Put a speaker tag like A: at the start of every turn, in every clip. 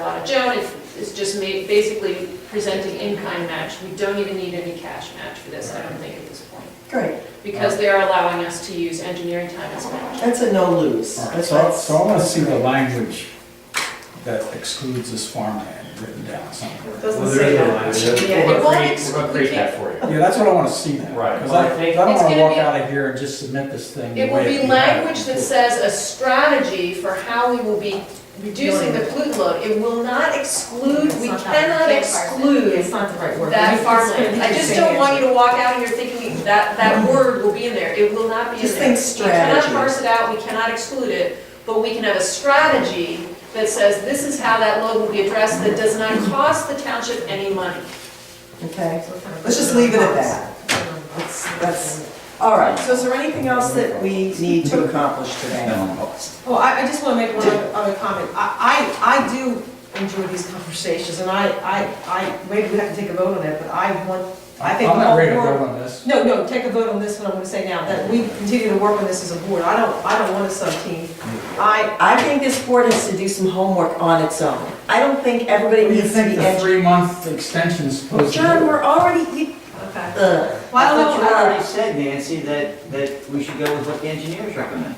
A: Uh, Joan is, is just ma, basically presenting in-kind match. We don't even need any cash match for this, I don't think, at this point.
B: Great,
A: Because they're allowing us to use engineering time as match.
B: that's a no lose.
C: All right,
B: That's-
C: so,
B: that's-
C: so I wanna see the language that excludes this farmland written down somewhere.
D: Doesn't
E: Well, there
D: say
E: is a
D: that.
E: line, we're
A: Yeah,
E: gonna
A: it won't
E: create-
A: ex-
E: we're gonna
A: we
E: create
A: can't-
E: that for you.
C: Yeah, that's what I wanna see now.
E: Right.
C: Cause I, 'cause I don't
A: It's
C: wanna
A: gonna
C: walk
A: be-
C: out of here and just submit this thing. the
A: It will
C: way
A: be
C: we have
A: language that
C: before.
A: says a strategy for how we will be reducing the pollutant load. It will not exclude, we
D: It's not
A: cannot
D: that- Yeah, It's
A: exclude
D: not the right word.
A: that
D: It's
A: farmland.
D: gonna
A: I
D: be
A: just
D: the
A: don't
D: same
A: want you to walk out of here thinking that, that word will be in there. It will not be in there.
B: Just think
A: We
B: strategy.
A: cannot parse it out, we cannot exclude it, but we can have a strategy that says this is how that load will be addressed that does not cost the township any money.
B: Okay,
D: answer.
B: let's just leave it at that. That's, that's, all right, so is there anything else that we need to accomplish today?
C: No.
D: Well, I, I just want to make one other other comment. I, I, I do enjoy these conversations, and I, I, I, maybe we have to take a vote on that, but I want, I
C: I'm
D: think. the
C: not
D: whole
C: ready to
D: board-
C: vote on this.
D: No, no, take a vote on this one, I'm gonna say now, that we continue to work on this as a board. I don't, I don't want a sub-team. I,
B: I think this board has to do some homework on its own. I don't think everybody
C: What do you
B: needs to be
C: think the
B: educated.
C: three-month extension is supposed to do?
B: John, we're already, e- uh, you,
D: okay.
B: ugh.
D: Well, I
F: But
D: don't
F: you
D: know,
F: already said, Nancy, that, that we should go with what the engineers recommend.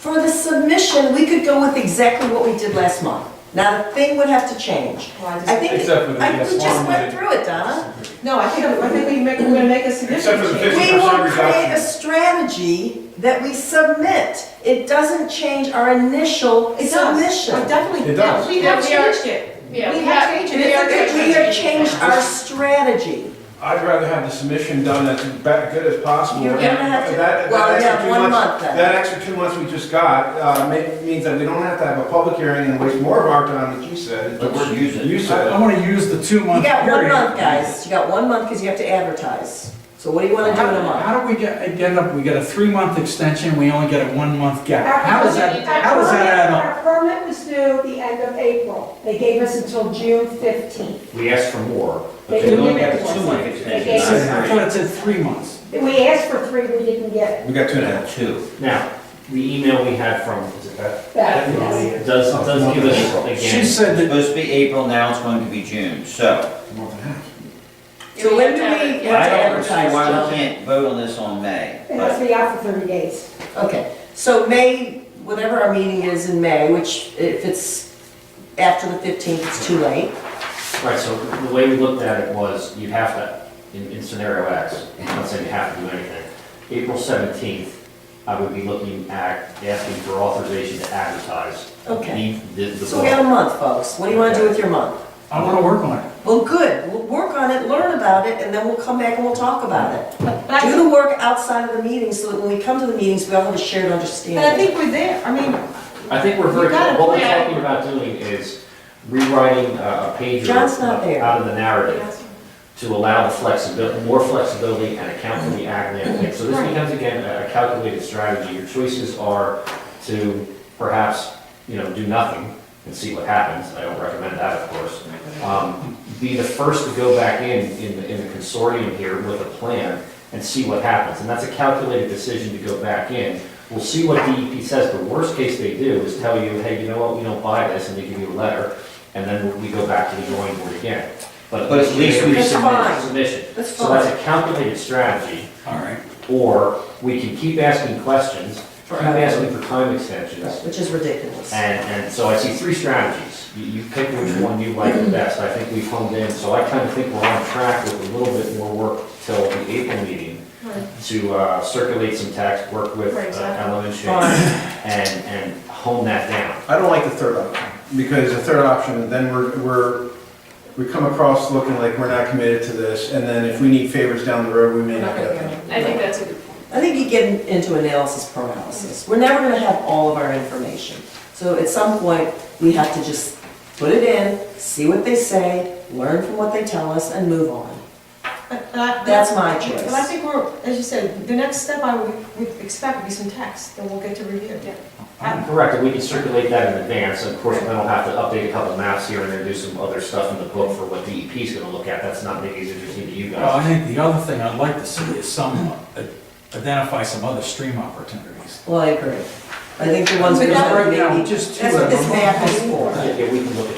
B: For the submission, we could go with exactly what we did last month. Not a thing would have to change.
D: Well, I just-
B: I think,
E: Except for the
B: I think we just went
E: farmland.
B: through it, Donna.
D: no, I think, I think we make, we're gonna make a significant
E: Except for the
D: change.
E: fifty-
B: We will
E: 50%
B: create a
E: reduction.
B: strategy that we submit. It doesn't change our initial
D: It does,
B: submission.
D: I definitely,
E: It does.
D: we have changed it.
A: Yeah,
D: We
A: we
D: have
A: have-
D: changed
B: We
D: it.
B: are, we are changed our strategy.
E: I'd rather have the submission done as ba- good as possible.
B: You're gonna have to-
E: That- that
B: well, you
E: extra
B: have
E: two
B: one month
E: months-
B: then.
E: That extra two months we just got, uh, ma- means that we don't have to have a public hearing and waste more of our time, like you said.
F: But we're using-
E: You
C: I, I
E: said.
C: wanna use the
B: You
C: two-month
B: got one
C: period.
B: month, guys. You got one month because you have to advertise. So what do you want to do in a month?
C: How do we get, end up, we get a three-month extension, we only get a one-month gap? How does that, how does that add
D: um,
C: up?
G: Our permit was due the end of April. They gave us until June 15th.
H: We asked for more, but
G: They
H: they only
G: didn't
H: got
G: give
H: a
G: us
H: two-month
G: one.
H: extension,
G: They gave
C: So,
H: not
C: I
H: three.
C: thought it said three months.
G: We asked for three, we didn't get
E: We got two and a half.
H: Two. Now, the email we had from, is it Beth?
G: it back. Yes.
H: Does, does give us,
C: She
H: again,
C: said
F: It's
C: that,
F: supposed to be April, now it's going to be June, so.
B: So when do we
A: Yeah.
B: want
F: I
B: to
F: don't see
B: advertise,
F: why we
B: John?
F: can't vote on this on May,
G: It has
F: but
G: to be out for 30 days.
B: Okay, so May, whatever our meeting is in May, which if it's after the 15th, it's too late.
H: right, so the way we looked at it was, you have to, in, in scenario X, I'm not saying you have to do anything. April seventeenth, I would be looking at, asking for authorization to advertise.
B: Okay.
H: The, the- the
B: So we got a month, folks. What do you want to do with your month?
C: I wanna work on it.
B: Well, good, we'll work on it, learn about it, and then we'll come back and we'll talk about it.
D: But I
B: Do the work outside of the meeting so that when we come to the meetings, we all have a shared understanding.
D: But I think we're there, I mean, uh,
H: I think we're
D: You
H: very,
D: got a
H: what we're
D: plan.
H: talking about doing is rewriting uh, a page or
B: John's not there.
H: out of the narrative to allow the flexibility, more flexibility and account for the ag land thing. So this
D: Right.
H: becomes again a a calculated strategy. Your choices are to perhaps, you know, do nothing and see what happens. I don't recommend that, of course. Um, Be the first to go back in, in the- in the consortium here with a plan and see what happens. And that's a calculated decision to go back in. We'll see what DEP says. The worst case they do is tell you, hey, you know what, we don't buy this, and they give you a letter, and then we go back to the drawing board again.
F: But at least we
H: have
B: That's
H: submitted
B: fine.
H: a submission.
B: That's
H: So that's a calculated strategy,
C: All right.
H: or we can keep asking questions, keep
B: Forever.
H: asking for time extensions.
B: Which is ridiculous.
H: And, and so I see three strategies. You, you pick which one you like the best. I think we've honed in, so I kind of think we're on track with a little bit more work till the April meeting to uh, circulate some text, work with
A: Right,
H: uh,
A: exactly.
H: Ellen and Shane,
B: Fine.
H: and, and hone that down.
E: I don't like the third option, because the third option, then we're, we're, we come across looking like we're not committed to this, and then if we need favors down the road, we may not get them.
A: I think that's a good point.
B: I think you get into analysis paralysis. We're never gonna have all of our information. So at some point, we have to just put it in, see what they say, learn from what they tell us, and move on.
D: But- but I-
B: That's my choice.
D: uh, But I think we're, as you said, the next step I would would expect would be some text, then we'll get to review.
H: Correct, and we can circulate that in advance. Of course, then I'll have to update a couple maps here and then do some other stuff in the book for what DEP is gonna look at. That's not maybe as interesting to you
C: Well,
H: guys.
C: I think the other thing I'd like to see is some, uh, identify some other stream opportunities.
B: Well, I agree. I think the ones
C: Because
B: that
C: right now,
B: maybe,
C: just two
B: that's what
C: of
B: this
C: them.
B: map is for.
H: Yeah, we can look at